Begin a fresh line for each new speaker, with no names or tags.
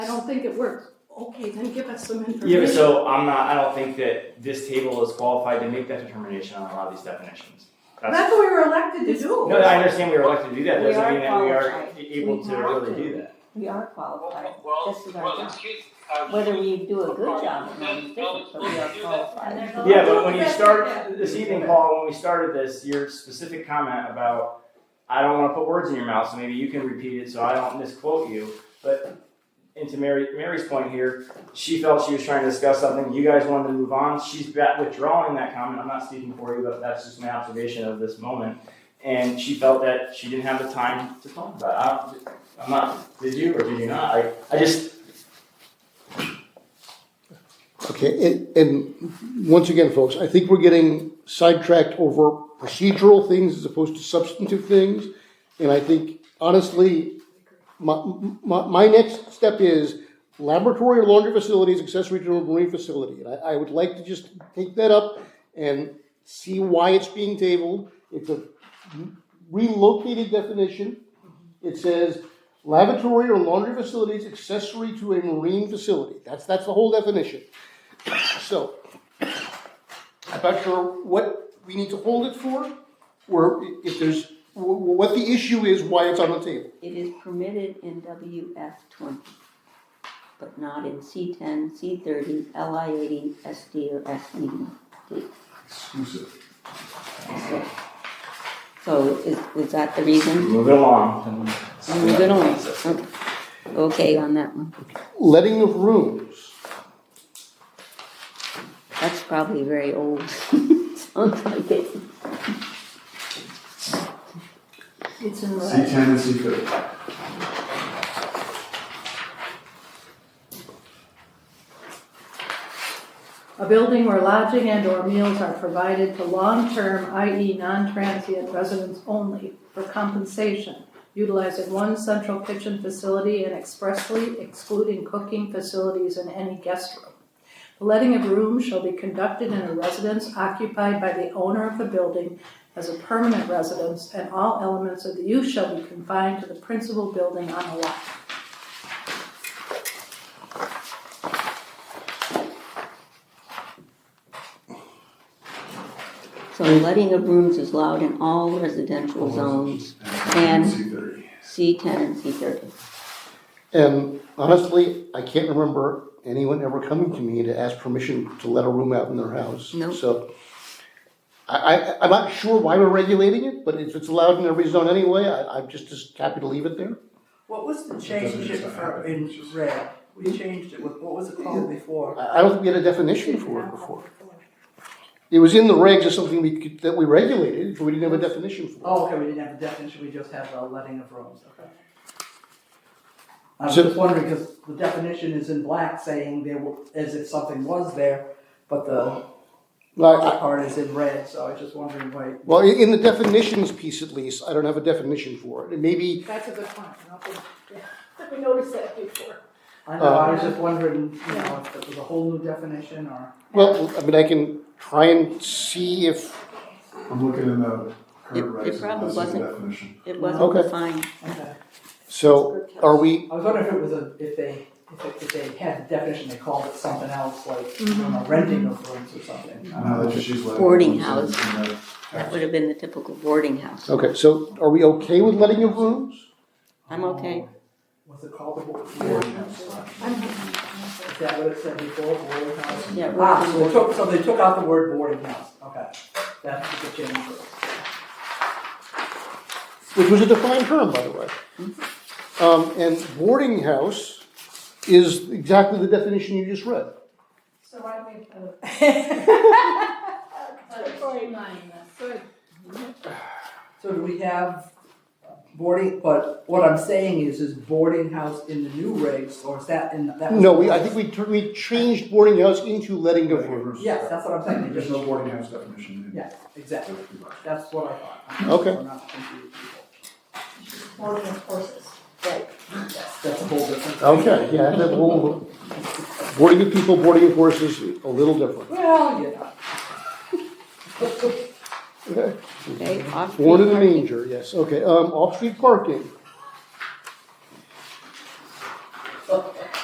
think it works, okay, then give us some information.
Yeah, but so uh, I'm not, I don't think that this table is qualified to make that determination on a lot of these definitions. That's,
That's what we were elected to do.
no, I understand we were elected to do that,
We
doesn't
are
mean that we are
qualified.
a- able
We
to
have
really
to.
do that.
We are qualified,
Well, well,
This is our
well,
job.
excuse, uh,
whether we do a good
Well,
job or not, is different, but we are
well,
And
qualified.
there's a
Yeah,
lot
but
of
when
people
you
that
start this evening, Paul, when we started this, your specific comment about, I don't wanna put words in your mouth, so maybe you can repeat it, so I don't misquote you, but into Mary, Mary's point here, she felt she was trying to discuss something, you guys wanted to move on, she's back withdrawing that comment, I'm not speaking for you, but that's just my observation of this moment. And she felt that she didn't have the time to talk about it, I, I'm not, did you or did you not, I, I just,
Okay, and, and once again, folks, I think we're getting sidetracked over procedural things as opposed to substantive things. And I think honestly, my, my, my next step is laboratory or laundry facilities, accessory to a marine facility. And I, I would like to just take that up and see why it's being tabled. It's a relocated definition. It says lavatory or laundry facilities accessory to a marine facility. That's, that's the whole definition. So, I'm not sure what we need to hold it for, or if there's, wh- wh- what the issue is, why it's on the table.
It is permitted in WF twenty, but not in C ten, C thirty, LI eighty, SD or E SD.
exclusive.
So is, is that the reason?
move it along.
I'm good on it. Okay. Oh, Okay on that one.
Letting of rooms,
That's probably very old. Sounds like it.
It's in
C ten and C thirty.
A building where lodging and or meals are provided to long-term, i.e. non-transient residents only for compensation, utilizing one central kitchen facility and expressly excluding cooking facilities in any guest room. The letting of rooms shall be conducted in a residence occupied by the owner of the building as a permanent residence, and all elements of the use shall be confined to the principal building on the lot.
So letting of rooms is allowed in all residential zones, And-
C thirty.
C ten and C thirty.
and honestly, I can't remember anyone ever coming to me to ask permission to let a room out in their house.
No.
So, I, I, I'm not sure why we're regulating it, but if it's allowed in every zone anyway, I, I'm just, just happy to leave it there.
What was the
doesn't
change
just
it for
happen,
in
it's just-
red? We changed it, what what was it called before?
I, I don't think we had a definition for it before. It was in the regs as something we could, that we regulated, but we didn't have a definition for it.
Oh, okay, we didn't have a definition, we just have a letting of rooms, okay. I was
So-
just wondering, because the definition is in black saying there were, as if something was there, but the
Like, I-
part is in red, so I was just wondering why.
well, in in the definitions piece at least, I don't have a definition for it. And maybe,
That's a good point. I don't think- yeah. We noticed that before.
I know, I was just wondering, you know, if it was a whole new definition or.
well, I mean, I can try and see if,
I'm looking in the
It-
current regs.
it probably
and that's the
wasn't.
Definition.
It wasn't
Okay.
defined.
Okay.
so are we,
I was wondering if it was a, if they, if it- if they had a definition, they called it something else, like, you know, renting of rooms or something. I don't
No,
know.
that's just she's letting.
Boarding
rooms in the
That would have been the typical boarding house.
okay, so are we okay with letting of rooms?
I'm okay.
Was Um, it called the board?
boarding house section.
Is that what it said before, boarding house?
Yeah, we're-
Ah, so they took, so they took out the word boarding house, okay. That's the change.
which was a defined term, by the way. Um, and boarding house is exactly the definition you just read.
So why don't we put line Good.
So do we have boarding, but what I'm saying is, is boarding house in the new regs, or is that in, that? was-
No, we, I think we, tur- we changed boarding house into letting of
Letting of
rooms.
rooms.
Yes, that's what I'm saying,
There's no boarding house definition in.
yeah, exactly, that's what I thought.
Okay.
We're not confusing people.
Boarding of horses.
Right. Yes, that's a whole different.
Okay, yeah, that whole, boarding of people, boarding of horses, a little different.
Well, yeah.
Okay.
Okay, off-street
Board in a
parking.
manger, yes, okay, um, off-street parking.